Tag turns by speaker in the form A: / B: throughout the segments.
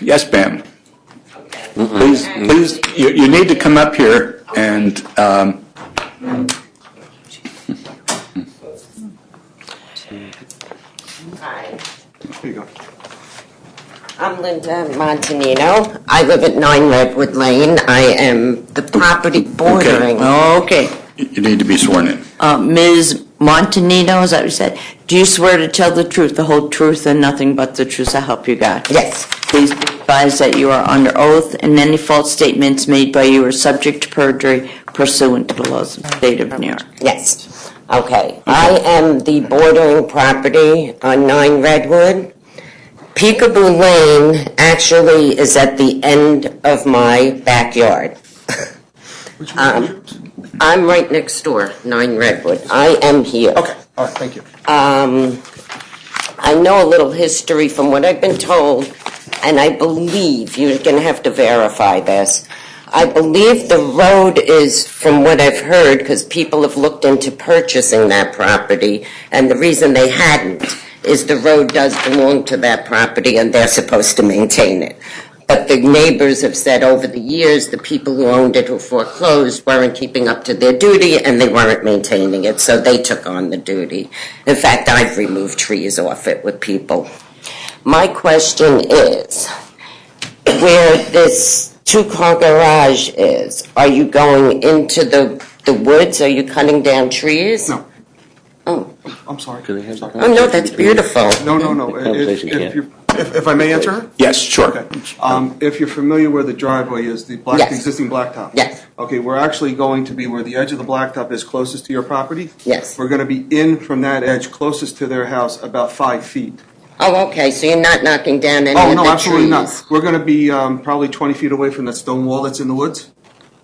A: Yes, ma'am.
B: Okay.
A: Please, please, you, you need to come up here and, um,
B: Hi,
C: Here you go.
B: I'm Linda Montanino. I live at 9 Redwood Lane. I am the property bordering.
D: Okay.
A: you need to be sworn in.
D: Uh, Ms. Montanino, is that what you said? Do you swear to tell the truth, the whole truth, and nothing but the truth, so help you God?
B: Yes,
D: Please be advised that you are under oath, and any false statements made by you are subject to perjury pursuant to the laws of the state of New York.
B: yes. Okay, I am the bordering property on 9 Redwood. Peekaboo Lane actually is at the end of my backyard. Um, I'm right next door, 9 Redwood. I am here.
C: Okay, all right, thank you.
B: Um, I know a little history from what I've been told, and I believe, you're going to have to verify this. I believe the road is, from what I've heard, because people have looked into purchasing that property, and the reason they hadn't is the road does belong to that property, and they're supposed to maintain it. But the neighbors have said over the years, the people who owned it who foreclosed weren't keeping up to their duty and they weren't maintaining it, so they took on the duty. In fact, I've removed trees off it with people. My question is, where this two-car garage is, are you going into the, the woods? Are you cutting down trees?
C: No.
B: Oh,
C: I'm sorry.
E: Can I have that?
B: oh no, that's beautiful.
C: No, no, no. If,
E: Conversation
C: if
E: can't.
C: you, if, if I may answer her?
A: Yes, sure.
C: Okay. Um, if you're familiar where the driveway is, the black,
B: Yes.
C: the existing blacktop.
B: Yes.
C: Okay, we're actually going to be where the edge of the blacktop is closest to your property.
B: Yes.
C: We're gonna be in from that edge closest to their house about five feet.
B: Oh, okay, so you're not knocking down any of
C: Oh,
B: the trees?
C: no, absolutely not. We're gonna be, um, probably twenty feet away from that stone wall that's in the woods.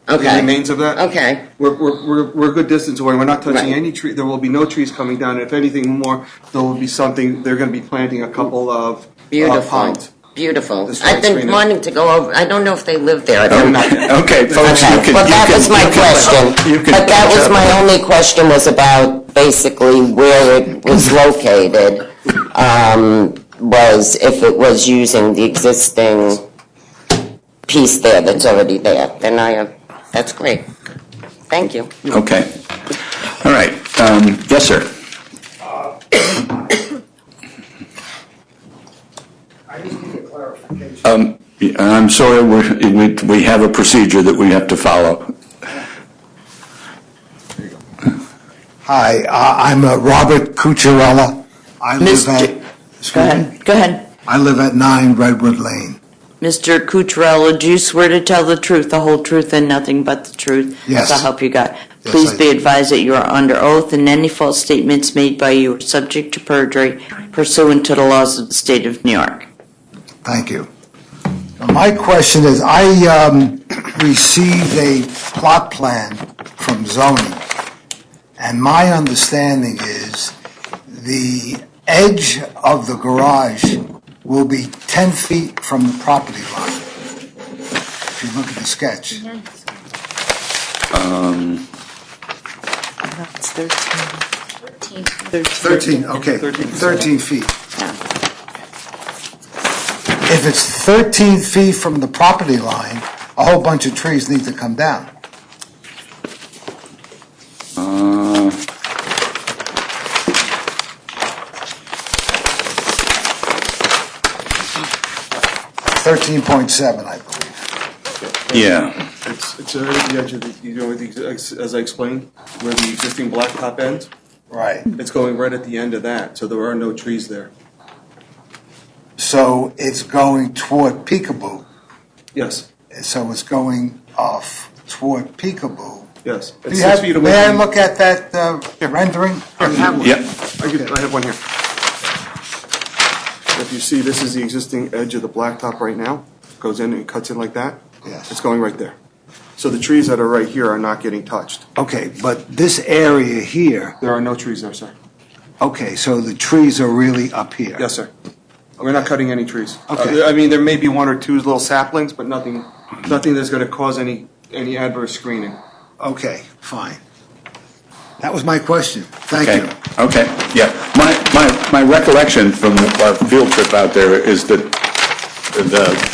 C: The
B: Okay.
C: remains of that.
B: Okay.
C: We're, we're, we're, we're a good distance away. We're not touching
B: Right.
C: any tree. There will be no trees coming down. If anything more, there will be something, they're gonna be planting a couple of uh,
B: Beautiful.
C: pines.
B: Beautiful.
C: This
B: I've
C: one's
B: been
C: greener.
B: wanting to go over, I don't know if they live there. I don't know.
A: Okay, folks, you
B: Okay,
A: can.
B: well,
A: you
B: that
A: can-
B: was my
A: you can-
B: question.
A: you can-
B: But that was my only question was about basically where it was located, um, was if it was using the existing piece there that's already there. Then I, uh, that's great. Thank you.
A: Okay. All right, um, yes, sir.
F: I just need a clarification.
A: Yeah, I'm sorry, we're- we, we have a procedure that we have to follow.
F: Hi, uh, I'm uh, Robert Cucciarella. I live
D: Mr.
F: at,
D: Go ahead, go ahead.
F: I live at 9 Redwood Lane.
D: Mr. Cucharella, do you swear to tell the truth, the whole truth, and nothing but the truth?
F: Yes.
D: So help you God. Please
F: I
D: be
F: do.
D: advised that you are under oath, and any false statements made by you are subject to perjury pursuant to the laws of the state of New York.
F: Thank you. My question is, I um, received a plot plan from zoning, and my understanding is the edge of the garage will be 10 feet from the property line, if you look at the sketch.
G: That's 13.
F: 13, okay, 13 feet. If it's 13 feet from the property line, a whole bunch of trees need to come down.
A: Uh,
F: Thirteen point seven, I believe.
A: Yeah,
C: It's, it's already the edge of the, you know, the, ex- as I explained, where the existing blacktop ends,
F: Right.
C: it's going right at the end of that, so there are no trees there.
F: So it's going toward Peekaboo.
C: Yes,
F: So it's going off toward Peekaboo.
C: yes.
F: Do
C: It's
F: you
C: six
F: have,
C: feet away
F: may I
C: from-
F: look at that uh, rendering?
C: I have one.
A: Yep.
C: I could- I have one here. If you see, this is the existing edge of the blacktop right now, goes in and cuts in like that.
F: Yes.
C: It's going right there. So the trees that are right here are not getting touched.
F: Okay, but this area here,
C: There are no trees there, sir.
F: okay, so the trees are really up here.
C: Yes, sir. We're not cutting any trees.
F: Okay.
C: Uh, I mean, there may be one or two little saplings, but nothing, nothing that's gonna cause any, any adverse screening.
F: Okay, fine. That was my question. Thank
A: okay,
F: you.
A: okay, yeah. My, my, my recollection from our field trip out there is that the